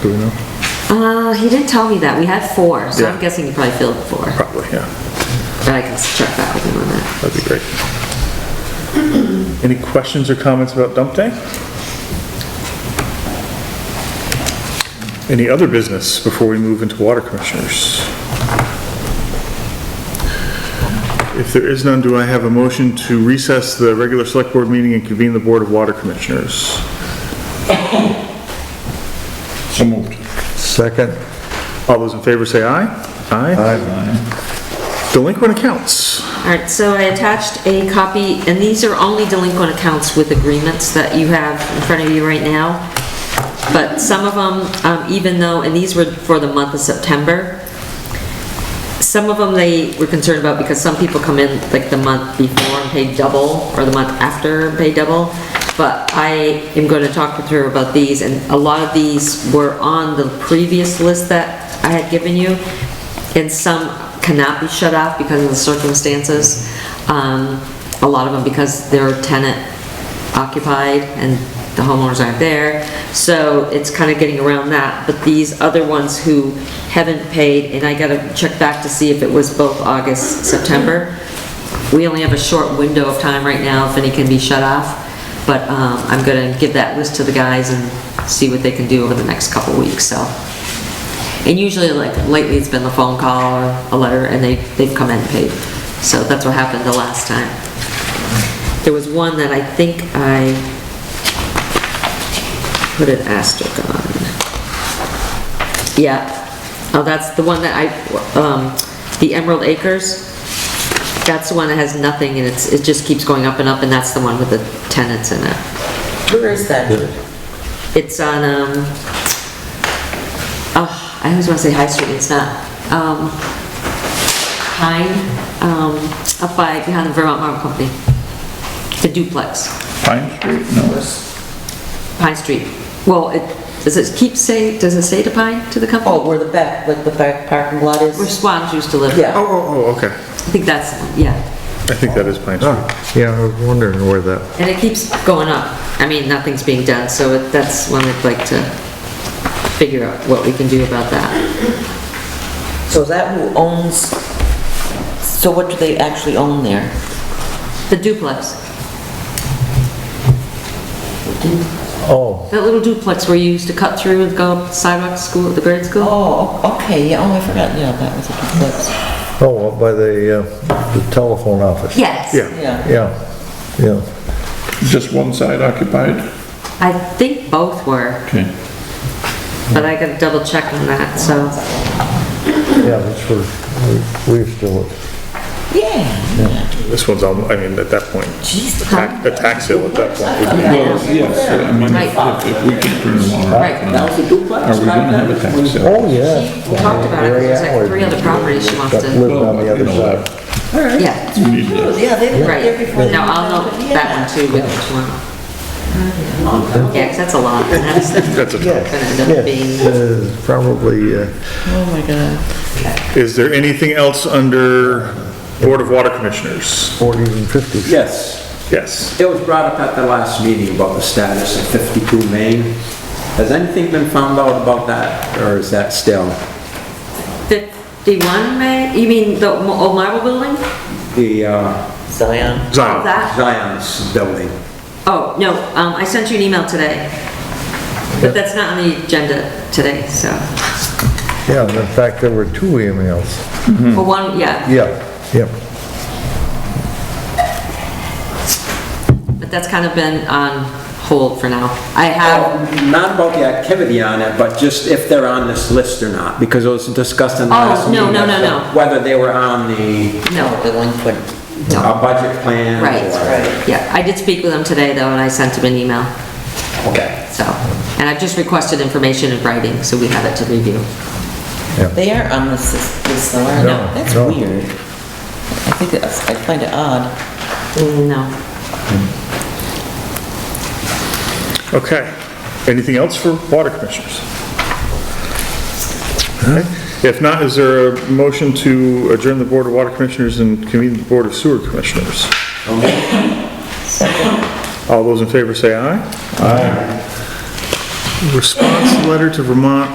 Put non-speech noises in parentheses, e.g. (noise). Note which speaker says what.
Speaker 1: do we know?
Speaker 2: Uh, he didn't tell me that. We had four, so I'm
Speaker 1: Yeah.
Speaker 2: guessing he probably filled four,
Speaker 1: Probably, yeah,
Speaker 2: but I can check back with him on that.
Speaker 1: that'd be great. Any questions or comments about dump day? Any other business before we move into water commissioners? If there is none, do I have a motion to recess the regular select board meeting and convene the Board of Water Commissioners?
Speaker 3: (laughs) So moved.
Speaker 4: Second.
Speaker 1: All those in favor say aye. Aye. Delinquent accounts.
Speaker 2: All right, so I attached a copy, and these are only delinquent accounts with agreements that you have in front of you right now. But some of them, um, even though, and these were for the month of September, some of them they were concerned about because some people come in like the month before and pay double, or the month after and pay double. But I am going to talk with her about these, and a lot of these were on the previous list that I had given you, and some cannot be shut off because of the circumstances. Um, A lot of them because they're tenant occupied and the homeowners aren't there. So it's kind of getting around that, but these other ones who haven't paid, and I gotta check back to see if it was both August, September. We only have a short window of time right now if any can be shut off, but um, I'm gonna give that list to the guys and see what they can do over the next couple weeks, so. And usually, like lately, it's been the phone call or a letter, and they, they've come in and paid. So that's what happened the last time. There was one that I think I put an asterisk on. Yeah, oh, that's the one that I, um, the Emerald Acres, that's the one that has nothing and it's, it just keeps going up and up and that's the one with the tenants in it.
Speaker 5: Where is that?
Speaker 2: It's on, um, oh, I always wanna say High Street, it's not, um, Pine, um, up by, behind the Vermont Marble Company. The duplex.
Speaker 3: Pine Street? No,
Speaker 2: Pine Street. Well, it, does it keep say, does it say to Pine, to the company?
Speaker 5: Oh, where the back, like the back parking lot
Speaker 2: Where
Speaker 5: is?
Speaker 2: Swans used to live.
Speaker 5: Yeah.
Speaker 1: Oh, oh, oh, okay.
Speaker 2: I think that's, yeah.
Speaker 1: I think that is Pine
Speaker 3: Ah.
Speaker 1: Street.
Speaker 4: Yeah, I was wondering where that,
Speaker 2: And it keeps going up. I mean, nothing's being done, so it- that's one I'd like to figure out what we can do about that.
Speaker 5: So is that who owns, so what do they actually own there?
Speaker 2: The duplex,
Speaker 4: oh,
Speaker 2: that little duplex where you used to cut through and go up sidewalk to school, the grade school?
Speaker 5: Oh, okay, yeah, oh, I forgot, yeah, that was a duplex.
Speaker 4: oh, up by the, uh, the telephone office.
Speaker 2: Yes.
Speaker 1: Yeah.
Speaker 5: Yeah,
Speaker 4: Yeah, yeah.
Speaker 3: just one side occupied?
Speaker 2: I think both were,
Speaker 3: Okay.
Speaker 2: but I gotta double check on that, so.
Speaker 4: Yeah, that's where we we used to live.
Speaker 5: yeah,
Speaker 1: This one's, on- I mean, at that point,
Speaker 5: jeez.
Speaker 1: tax- a tax sale at that point. would be-
Speaker 3: Well, yes, I mean,
Speaker 2: Right.
Speaker 3: if if we can't turn the water
Speaker 2: Right,
Speaker 3: off, then
Speaker 5: That was a
Speaker 3: are
Speaker 5: duplex?
Speaker 3: we gonna have a tax sale?
Speaker 4: Oh, yeah.
Speaker 2: We talked about it, there's like three other properties she wants
Speaker 4: That
Speaker 2: to,
Speaker 4: lived on the other
Speaker 3: Well, you know,
Speaker 4: side.
Speaker 2: yeah.
Speaker 3: We need
Speaker 1: Oh,
Speaker 3: to-
Speaker 5: Oh, Yeah, they were
Speaker 2: Right,
Speaker 5: there before.
Speaker 2: no, I'll note that one too with each one. Yeah, 'cause that's a
Speaker 5: (laughs)
Speaker 2: lot, and that's
Speaker 1: That's a,
Speaker 2: gonna end up
Speaker 4: Yes,
Speaker 2: being,
Speaker 4: uh, probably, uh,
Speaker 5: Oh, my God.
Speaker 1: is there anything else under Board of Water Commissioners?
Speaker 4: forties and fifties.
Speaker 6: Yes,
Speaker 1: Yes.
Speaker 6: it was brought up at the last meeting about the status of 52 Main. Has anything been found out about that, or is that still
Speaker 2: fifty-one, May, you mean the mo- old marble building?
Speaker 6: the uh,
Speaker 5: Zion.
Speaker 1: Zion.
Speaker 2: That,
Speaker 6: Zion's building?
Speaker 2: oh, no, um, I sent you an email today, but that's not on the agenda today, so,
Speaker 4: Yeah, and in fact, there were two emails.
Speaker 2: well, one, yeah,
Speaker 4: Yeah, yeah.
Speaker 2: but that's kind of been on hold for now. I have,
Speaker 6: Not about the activity on it, but just if they're on this list or not, because it was discussed in the
Speaker 2: Oh,
Speaker 6: last
Speaker 2: no,
Speaker 6: meeting.
Speaker 2: no, no,
Speaker 6: as to
Speaker 2: no.
Speaker 6: Whether they were on the
Speaker 2: no,
Speaker 5: Delinquent.
Speaker 2: no,
Speaker 6: uh, budget plan or...
Speaker 2: Right, yeah, I did speak with him today though, and I sent him an email,
Speaker 6: Okay.
Speaker 2: so, and I've just requested information in writing, so we have it to review.
Speaker 5: They are on this, this, though, aren't
Speaker 4: No,
Speaker 5: they? That's
Speaker 4: no.
Speaker 5: weird. I think that's, I find it odd.
Speaker 2: No.
Speaker 1: Okay. Anything else for Water Commissioners? Okay. If not, is there a motion to adjourn the Board of Water Commissioners and convene the Board of Sewer Commissioners? All those in favor say aye. Aye. Response letter to Vermont